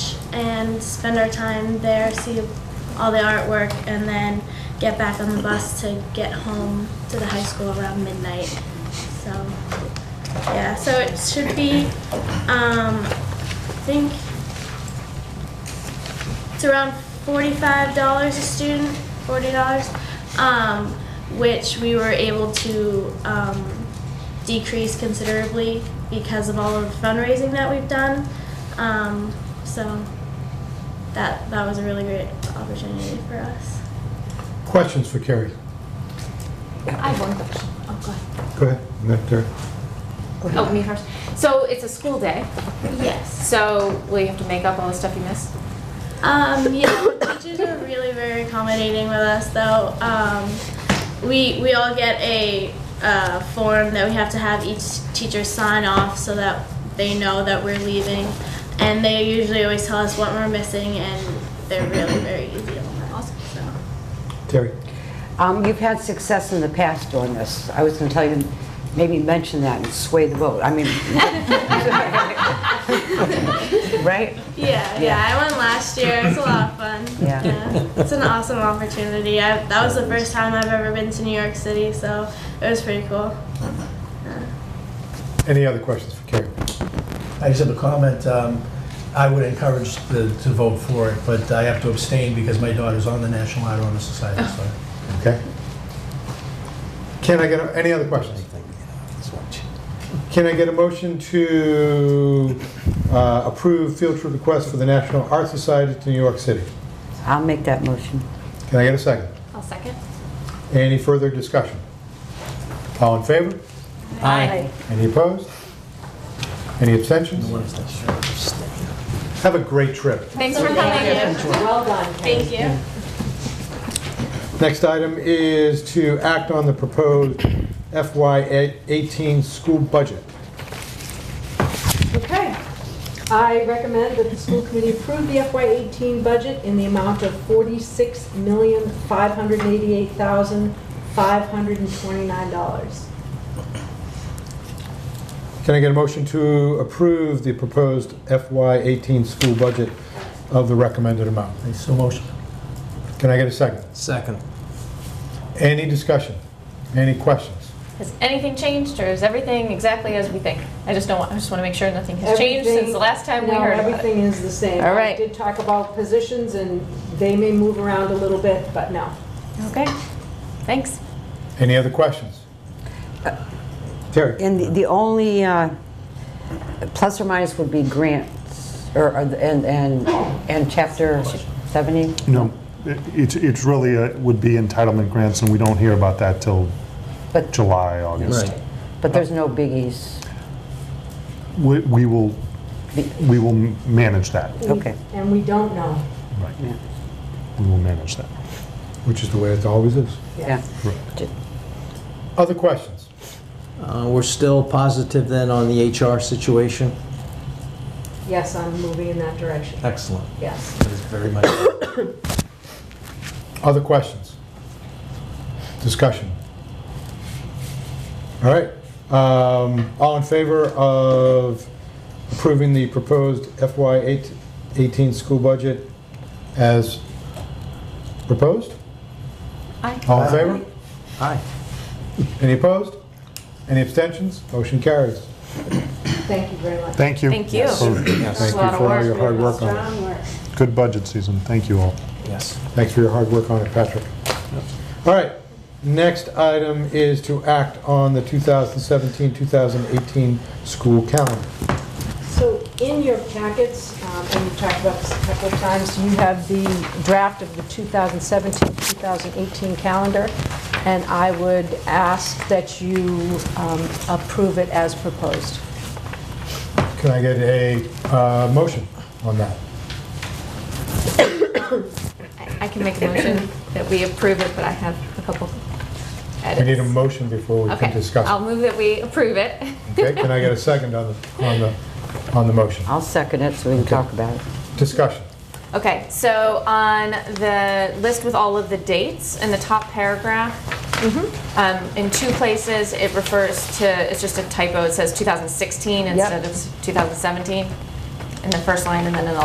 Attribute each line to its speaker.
Speaker 1: and spend our time there, see all the artwork, and then get back on the bus to get home to the high school around midnight. So, yeah, so it should be, um, I think it's around forty-five dollars a student, forty dollars, um, which we were able to um, decrease considerably because of all of the fundraising that we've done. Um, so that that was a really great opportunity for us.
Speaker 2: Questions for Carrie?
Speaker 3: I have one question. Oh, go ahead.
Speaker 2: Go ahead. Nick, Carrie.
Speaker 3: Oh, me first. So it's a school day,
Speaker 1: Yes.
Speaker 3: so will you have to make up all the stuff you missed?
Speaker 1: Um, yeah, the teachers are really very accommodating with us, though. Um, we we all get a uh, form that we have to have each teacher sign off so that they know that we're leaving, and they usually always tell us what we're missing, and they're really very easy on that.
Speaker 3: Awesome.
Speaker 1: So.
Speaker 2: Terry?
Speaker 4: Um, You've had success in the past doing this. I was going to tell you, maybe mention that and sway the vote. I mean, right?
Speaker 1: Yeah, yeah, I went last year. It's a lot of fun.
Speaker 4: Yeah.
Speaker 1: It's an awesome opportunity. I, that was the first time I've ever been to New York City, so it was pretty cool.
Speaker 2: Any other questions for Carrie?
Speaker 5: I just have a comment. Um, I would encourage the- to vote for it, but I have to abstain because my daughter's on the National Honor Honor Society, so.
Speaker 2: Okay. Can I get, a- any other questions? Can I get a motion to uh, approve field trip request for the National Art Society to New York City?
Speaker 4: I'll make that motion.
Speaker 2: Can I get a second?
Speaker 3: I'll second.
Speaker 2: Any further discussion? All in favor?
Speaker 3: Aye.
Speaker 2: Any opposed? Any abstentions? Have a great trip.
Speaker 3: Thanks for coming.
Speaker 6: Well done.
Speaker 1: Thank you.
Speaker 2: Next item is to act on the proposed FY18 school budget.
Speaker 6: Okay. I recommend that the school committee approve the FY18 budget in the amount of $46,588,529.
Speaker 2: Can I get a motion to approve the proposed FY18 school budget of the recommended amount?
Speaker 5: I so motion.
Speaker 2: Can I get a second?
Speaker 7: Second.
Speaker 2: Any discussion? Any questions?
Speaker 3: Has anything changed, or is everything exactly as we think? I just don't want, I just want to make sure nothing has changed since
Speaker 6: Everything-
Speaker 3: the last time we
Speaker 6: no,
Speaker 3: heard about it.
Speaker 6: everything is the same.
Speaker 3: All right.
Speaker 6: I did talk about positions, and they may move around a little bit, but no.
Speaker 3: Okay, thanks.
Speaker 2: Any other questions? Terry?
Speaker 4: And the- the only uh, plus or minus would be grants, or, or the- and, and, and Chapter 70?
Speaker 8: No, it- it's, it's really, uh, would be entitlement grants, and we don't hear about that till
Speaker 4: But,
Speaker 8: July, August.
Speaker 7: Right.
Speaker 4: but there's no biggies.
Speaker 8: We we will, we will manage that.
Speaker 6: We-
Speaker 4: Okay.
Speaker 6: And we don't know.
Speaker 8: Right. We will manage that.
Speaker 2: Which is the way it always is.
Speaker 4: Yeah.
Speaker 2: Other questions?
Speaker 7: Uh, We're still positive then on the HR situation?
Speaker 6: Yes, I'm moving in that direction.
Speaker 7: Excellent.
Speaker 6: Yes.
Speaker 7: That is very much.
Speaker 2: Other questions? Discussion? All right. Um, All in favor of approving the proposed FY18 school budget as proposed?
Speaker 3: Aye.
Speaker 2: All in favor?
Speaker 7: Aye.
Speaker 2: Any opposed? Any abstentions? Motion carries.
Speaker 6: Thank you very much.
Speaker 8: Thank you.
Speaker 3: Thank you.
Speaker 8: For
Speaker 7: Yes,
Speaker 2: Thank you for all your hard work on it.
Speaker 6: Strong work.
Speaker 8: Good budget season. Thank you all.
Speaker 7: yes.
Speaker 2: Thanks for your hard work on it, Patrick. All right, next item is to act on the 2017-2018 school calendar.
Speaker 6: So in your packets, um, and we've talked about this a couple of times, you have the draft of the 2017-2018 calendar, and I would ask that you um, approve it as proposed.
Speaker 2: Can I get a uh, motion on that?
Speaker 3: I I can make a motion that we approve it, but I have a couple edits.
Speaker 2: We need a motion before we can
Speaker 3: Okay, I'll
Speaker 2: discuss. it.
Speaker 3: move that we approve it.
Speaker 2: Okay, can I get a second on the, on the, on the motion?
Speaker 4: I'll second it so we can talk about it.
Speaker 2: Discussion.
Speaker 3: Okay, so on the list with all of the dates, in the top paragraph, um, in two places, it refers to, it's just a typo, it says 2016 instead of 2017 in the first line, and then in the